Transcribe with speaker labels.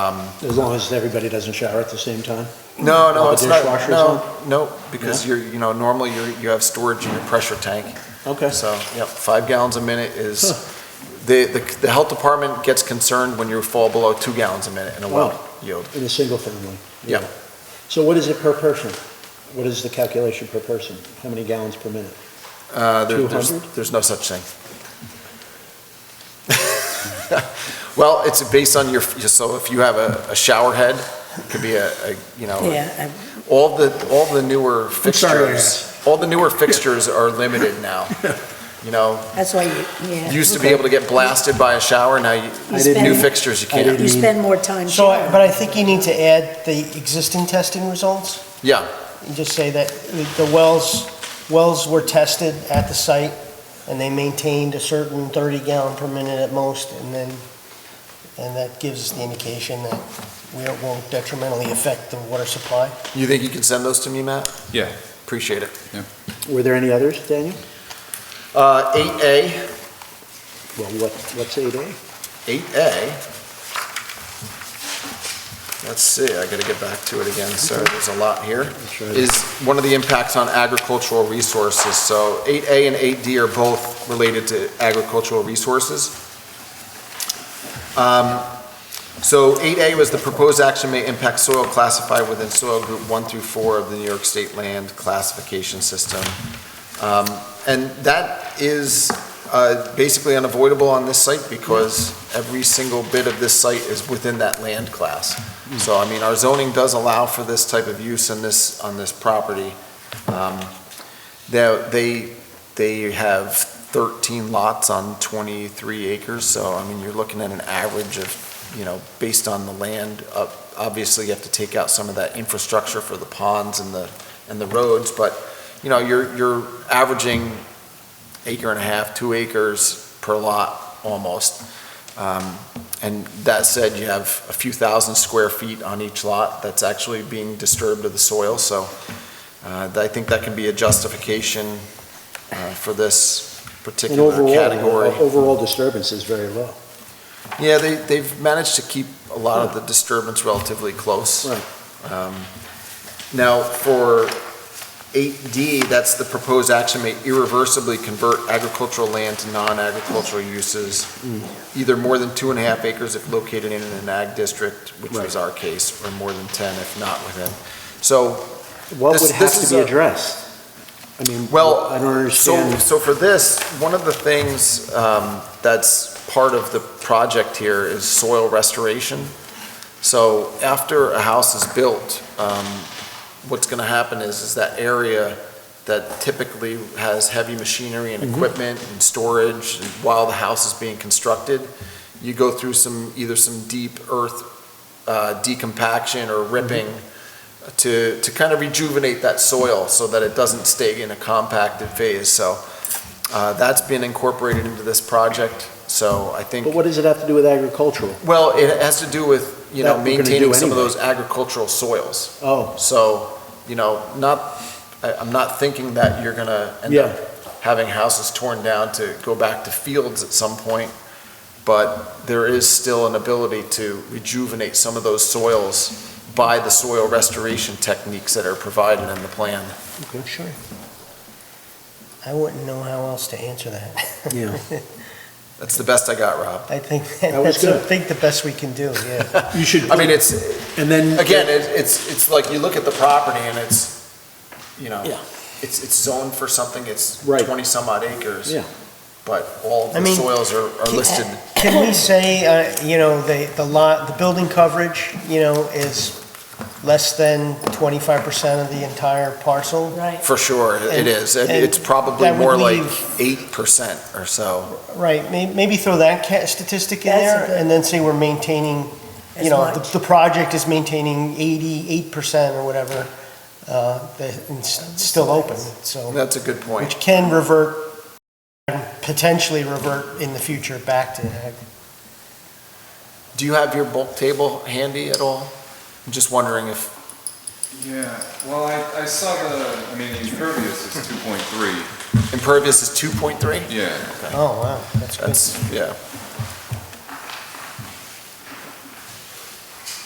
Speaker 1: As long as everybody doesn't shower at the same time?
Speaker 2: No, no,
Speaker 1: Like a
Speaker 2: it's not,
Speaker 1: dishwasher or
Speaker 2: no, no, because you're, you know, normally you're, you have storage in your pressure tank.
Speaker 1: Okay.
Speaker 2: So, yep, five gallons a minute is, the, the, the health department gets concerned when you fall below two gallons a minute in a well
Speaker 1: Wow.
Speaker 2: yield.
Speaker 1: In a single family?
Speaker 2: Yeah.
Speaker 1: So what is it per person? What is the calculation per person? How many gallons per minute?
Speaker 2: Uh, there- there's,
Speaker 1: 200?
Speaker 2: there's no such thing. Well, it's based on your, so if you have a, a shower head, it could be a, a, you know, a
Speaker 3: Yeah,
Speaker 2: All the, all the newer
Speaker 4: I'm sorry to
Speaker 2: fixtures, all the newer fixtures are limited now. You know,
Speaker 3: I- that's why you, yeah.
Speaker 2: you used to be able to get blasted by a shower, now you,
Speaker 3: You spend-
Speaker 2: new fixtures, you
Speaker 1: I
Speaker 2: can't.
Speaker 3: You spend more time.
Speaker 4: So, I-
Speaker 3: showering.
Speaker 4: but I think you need to add the existing testing results.
Speaker 2: Yeah,
Speaker 4: And just say that the wells, wells were tested at the site, and they maintained a certain 30 gallon per minute at most, and then, and that gives the indication that we it won't detrimentally affect the water supply.
Speaker 2: you think you can send those to me, Matt?
Speaker 5: Yeah.
Speaker 2: Appreciate it.
Speaker 1: Were there any others, Daniel?
Speaker 2: Uh, eight A,
Speaker 1: Well, what, what's eight A?
Speaker 2: eight A. Let's see, I gotta get back to it again, sorry, there's a lot here. is one of the impacts on agricultural resources. So 8A and 8D are both related to agricultural resources. Um, So 8A was the proposed action may impact soil classified within soil group 1 through 4 of the New York State Land Classification System. Um, And that is uh, basically unavoidable on this site because every single bit of this site is within that land class. So, I mean, our zoning does allow for this type of use in this, on this property. Um, They, they, they have 13 lots on 23 acres, so, I mean, you're looking at an average of, you know, based on the land, uh, obviously you have to take out some of that infrastructure for the ponds and the, and the roads, but, you know, you're, you're averaging acre and a half, two acres per lot, almost. Um, and that said, you have a few thousand square feet on each lot that's actually being disturbed of the soil, so uh, I think that can be a justification uh, for this
Speaker 1: And
Speaker 2: particular
Speaker 1: overall,
Speaker 2: category.
Speaker 1: uh, overall disturbance is very low.
Speaker 2: Yeah, they, they've managed to keep a lot of the disturbance relatively close.
Speaker 1: Right.
Speaker 2: Um, Now, for 8D, that's the proposed action may irreversibly convert agricultural land to non-agricultural uses, either more than two and a half acres if located in an ag district, which was our case, or more than 10 if not within. So,
Speaker 1: What
Speaker 2: This-
Speaker 1: would have
Speaker 2: this
Speaker 1: to
Speaker 2: is
Speaker 1: be
Speaker 2: a-
Speaker 1: addressed? I mean,
Speaker 2: well,
Speaker 1: I don't
Speaker 2: so,
Speaker 1: understand.
Speaker 2: so for this, one of the things um, that's part of the project here is soil restoration. So after a house is built, um, what's going to happen is, is that area that typically has heavy machinery
Speaker 1: Mm-hmm.
Speaker 2: and equipment and storage and while the house is being constructed, you go through some, either some deep earth uh, decompaction or
Speaker 1: Mm-hmm.
Speaker 2: ripping to, to kind of rejuvenate that soil so that it doesn't stay in a compacted phase. So uh, that's been incorporated into this project. So I think.
Speaker 1: But what does it have to do with agricultural?
Speaker 2: Well, it has to do with, you
Speaker 1: That
Speaker 2: know,
Speaker 1: we're gonna do
Speaker 2: maintaining some of
Speaker 1: anyway.
Speaker 2: those agricultural soils.
Speaker 1: Oh,
Speaker 2: So, you know, not, I, I'm not thinking that you're gonna end
Speaker 1: yeah,
Speaker 2: up having houses torn down to go back to fields at some point, but there is still an ability to rejuvenate some of those soils by the soil restoration techniques that are provided in the plan.
Speaker 1: okay, sure.
Speaker 4: I wouldn't know how else to answer that.
Speaker 1: Yeah.
Speaker 2: That's the best I got, Rob.
Speaker 4: I think,
Speaker 1: That was
Speaker 4: that's, I
Speaker 1: good.
Speaker 4: think the best we can do, yeah.
Speaker 1: You should,
Speaker 2: I mean, it's,
Speaker 1: and then.
Speaker 2: again, it's, it's, it's like you look at the property and it's, you know,
Speaker 1: Yeah.
Speaker 2: it's, it's zoned for something, it's
Speaker 1: Right.
Speaker 2: twenty some odd acres.
Speaker 1: Yeah.
Speaker 2: But all
Speaker 4: I
Speaker 2: the
Speaker 4: mean,
Speaker 2: soils are, are
Speaker 4: can-
Speaker 2: listed.
Speaker 4: Can we say, uh, you know, the, the lot, the building coverage, you know, is less than 25% of the entire parcel?
Speaker 3: Right.
Speaker 2: For sure, it
Speaker 4: And-
Speaker 2: is. It-
Speaker 4: and
Speaker 2: It's probably
Speaker 4: that would
Speaker 2: more like
Speaker 4: leave-
Speaker 2: eight percent or so.
Speaker 4: Right, may, maybe throw that ca- statistic in
Speaker 3: That's a
Speaker 4: there,
Speaker 3: good-
Speaker 4: and then say we're maintaining,
Speaker 3: As
Speaker 4: you know, the,
Speaker 3: much.
Speaker 4: the project is maintaining eighty-eight percent or whatever, uh, that, and it's still open, so,
Speaker 2: That's a good point.
Speaker 4: which can revert, potentially revert in the future back to ag.
Speaker 2: Do you have your bulk table handy at all? I'm just wondering if,
Speaker 5: Yeah, well, I, I saw the, I mean, the impervious is two point three,
Speaker 2: impervious is two point three?
Speaker 5: yeah.
Speaker 4: Oh, wow, that's good.
Speaker 2: That's, yeah.